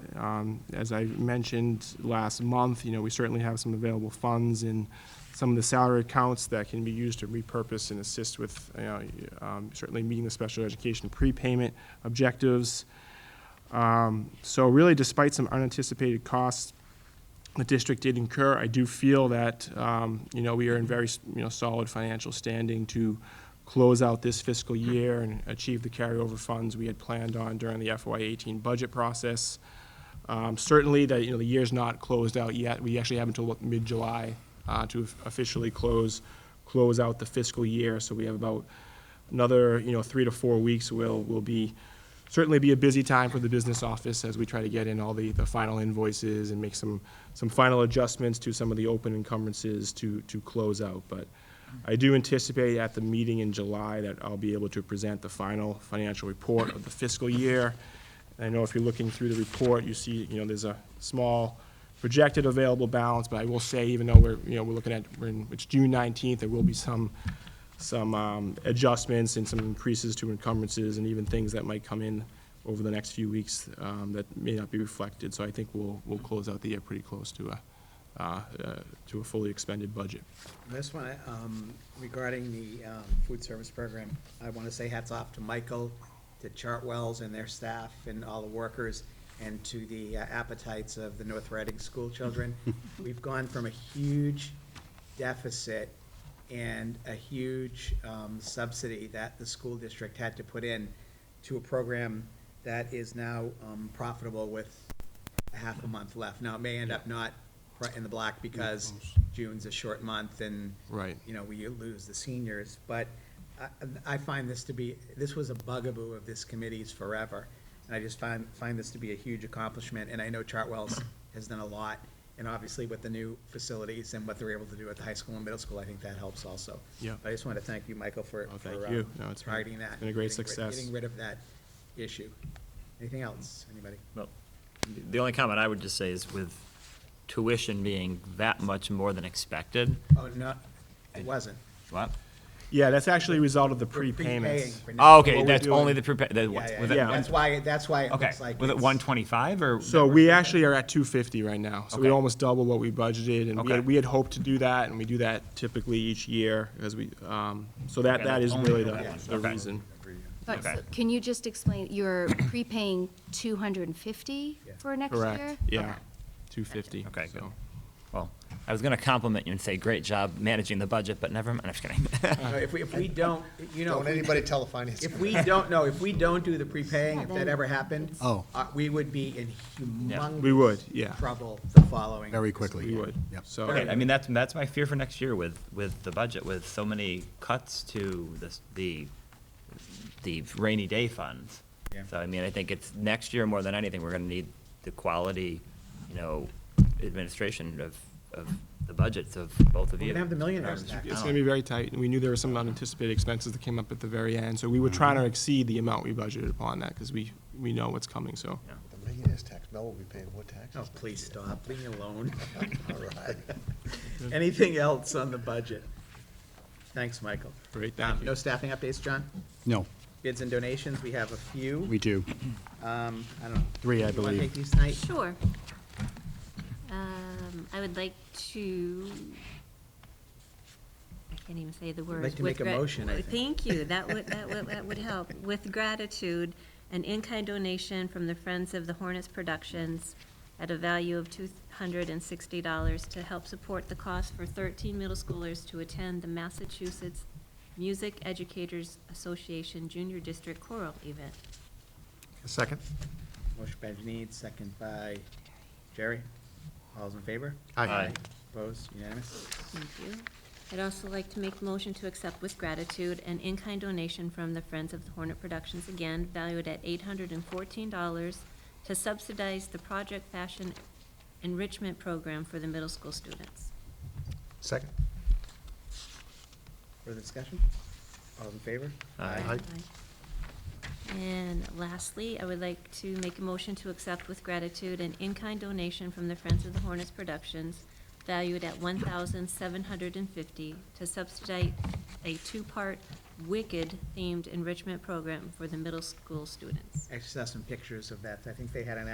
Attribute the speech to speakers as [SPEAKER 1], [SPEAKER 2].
[SPEAKER 1] Um, As I mentioned last month, you know, we certainly have some available funds in some of the salary accounts that can be used to repurpose and assist with, you know, um, certainly meeting the special education prepayment objectives. Um, So really, despite some unanticipated costs the district did incur, I do feel that, um, you know, we are in very, you know, solid financial standing to close out this fiscal year and achieve the carryover funds we had planned on during the FY eighteen budget process. Um, Certainly, that, you know, the year's not closed out yet. We actually have until what, mid-July uh, to officially close, close out the fiscal year. So we have about another, you know, three to four weeks will, will be, certainly be a busy time for the business office as we try to get in all the, the final invoices and make some, some final adjustments to some of the open encumbrances to, to close out. But I do anticipate at the meeting in July that I'll be able to present the final financial report of the fiscal year. I know if you're looking through the report, you see, you know, there's a small projected available balance, but I will say, even though we're, you know, we're looking at, we're in, it's June nineteenth, there will be some, some, um, adjustments and some increases to encumbrances and even things that might come in over the next few weeks, um, that may not be reflected, so I think we'll, we'll close out the year pretty close to a, uh, uh, to a fully expended budget.
[SPEAKER 2] This one, um, regarding the, um, food service program, I want to say hats off to Michael, to Chartwells and their staff and all the workers, and to the uh, appetites of the North Reading school children. We've gone from a huge deficit and a huge, um, subsidy that the school district had to put in to a program that is now, um, profitable with half a month left. Now, it may end up not pri- in the black because June's a short month and.
[SPEAKER 1] Right.
[SPEAKER 2] You know, we lose the seniors, but I, I find this to be, this was a bugaboo of this committee's forever. And I just find, find this to be a huge accomplishment, and I know Chartwell's has done a lot. And obviously with the new facilities and what they're able to do at the high school and middle school, I think that helps also.
[SPEAKER 1] Yeah.
[SPEAKER 2] But I just want to thank you, Michael, for.
[SPEAKER 1] Oh, thank
[SPEAKER 2] for, uh,
[SPEAKER 1] you. No, it's been-
[SPEAKER 2] Providing that.
[SPEAKER 1] been a great
[SPEAKER 2] getting rid-
[SPEAKER 1] success.
[SPEAKER 2] Getting rid of that issue. Anything else, anybody?
[SPEAKER 3] Well, the only comment I would just say is with tuition being that much more than expected,
[SPEAKER 2] Oh, no, it wasn't.
[SPEAKER 3] what?
[SPEAKER 1] Yeah, that's actually a result of the
[SPEAKER 2] We're prepaying
[SPEAKER 1] prepayments.
[SPEAKER 2] for now.
[SPEAKER 3] Oh,
[SPEAKER 1] What
[SPEAKER 3] okay,
[SPEAKER 1] we're
[SPEAKER 3] that's
[SPEAKER 1] doing-
[SPEAKER 3] only the prepared, that,
[SPEAKER 2] Yeah,
[SPEAKER 3] was
[SPEAKER 2] yeah,
[SPEAKER 3] it,
[SPEAKER 2] yeah.
[SPEAKER 1] that-
[SPEAKER 2] That's why, that's why it
[SPEAKER 3] okay,
[SPEAKER 2] looks like.
[SPEAKER 3] was it
[SPEAKER 2] it's-
[SPEAKER 3] one twenty-five or?
[SPEAKER 1] So we actually are at two fifty right now, so we
[SPEAKER 3] Okay.
[SPEAKER 1] almost double what we budgeted, and we
[SPEAKER 3] Okay.
[SPEAKER 1] had, we had hoped to do that, and we do that typically each year, as we, um, so that,
[SPEAKER 3] Okay,
[SPEAKER 1] that
[SPEAKER 3] that's
[SPEAKER 1] is
[SPEAKER 3] only
[SPEAKER 1] really
[SPEAKER 3] for
[SPEAKER 1] the,
[SPEAKER 3] that
[SPEAKER 1] the
[SPEAKER 3] one. Okay.
[SPEAKER 1] reason.
[SPEAKER 4] But
[SPEAKER 3] Okay.
[SPEAKER 4] so can you just explain, you're prepaying 250
[SPEAKER 2] Yeah.
[SPEAKER 4] for next year?
[SPEAKER 1] Correct, yeah, two fifty.
[SPEAKER 3] Okay, good. Well, I was gonna compliment you and say, great job managing the budget, but never mind, I'm just kidding.
[SPEAKER 2] No, If we, if we don't, you know,
[SPEAKER 5] Don't
[SPEAKER 2] if we-
[SPEAKER 5] anybody tell the finance.
[SPEAKER 2] if we don't, no, if we don't do the prepaying, if
[SPEAKER 4] Yeah,
[SPEAKER 2] that
[SPEAKER 4] then
[SPEAKER 2] ever happened.
[SPEAKER 5] Oh.
[SPEAKER 2] uh, We would be in humongous.
[SPEAKER 1] We would, yeah.
[SPEAKER 2] Trouble the following.
[SPEAKER 5] Very quickly.
[SPEAKER 1] We would,
[SPEAKER 5] Yep.
[SPEAKER 1] so.
[SPEAKER 3] Okay, I mean, that's, that's my fear for next year with, with the budget, with so many cuts to this, the, the rainy day funds.
[SPEAKER 2] Yeah.
[SPEAKER 3] So I mean, I think it's, next year more than anything, we're gonna need the quality, you know, administration of, of the budgets of both of
[SPEAKER 2] We're
[SPEAKER 3] you.
[SPEAKER 2] gonna have the millionaires back.
[SPEAKER 3] oh.
[SPEAKER 2] Oh.
[SPEAKER 1] It's gonna be very tight, and we knew there were some unanticipated expenses that came up at the very end, so we were trying
[SPEAKER 3] Mm-hmm.
[SPEAKER 1] to exceed the amount we budgeted upon that, because we, we know what's coming, so.
[SPEAKER 5] The millionaire's tax, Mel will be paying what tax?
[SPEAKER 2] Oh, please stop, leave me alone.
[SPEAKER 1] Oh.
[SPEAKER 5] All right.
[SPEAKER 2] Anything else on the budget? Thanks, Michael.
[SPEAKER 1] Great,
[SPEAKER 2] Um,
[SPEAKER 1] thank
[SPEAKER 2] No
[SPEAKER 1] you.
[SPEAKER 2] staffing updates, John?
[SPEAKER 5] No,
[SPEAKER 2] Bids and donations, we have a few.
[SPEAKER 5] we do.
[SPEAKER 2] Um, I don't know.
[SPEAKER 5] Three, I
[SPEAKER 2] You wanna
[SPEAKER 5] believe.
[SPEAKER 2] take these tonight?
[SPEAKER 4] Sure. Um, I would like to, I can't even say the word.
[SPEAKER 2] like to make a motion, I think.
[SPEAKER 6] Thank you, that would, that would, that would help. With gratitude, an in-kind donation from the Friends of the Hornets Productions at a value of two hundred and sixty dollars to help support the cost for thirteen middle schoolers to attend the Massachusetts Music Educators Association Junior District Choral event.
[SPEAKER 5] Second?
[SPEAKER 2] Motion by Janine, second by Jerry. All's in favor?
[SPEAKER 3] Aye.
[SPEAKER 2] Opposed, unanimous?
[SPEAKER 6] Thank you. I'd also like to make a motion to accept with gratitude an in-kind donation from the Friends of the Hornet Productions, again valued at eight hundred and fourteen dollars, to subsidize the Project Fashion Enrichment Program for the middle school students.
[SPEAKER 5] Second?
[SPEAKER 2] Further discussion? All's in favor?
[SPEAKER 3] Aye.
[SPEAKER 5] Aye.
[SPEAKER 6] And lastly, I would like to make a motion to accept with gratitude an in-kind donation from the Friends of the Hornets Productions valued at one thousand seven hundred and fifty to subsidize a two-part Wicked-themed enrichment program for the middle school students.
[SPEAKER 2] Actually, saw some pictures of that. I think they had an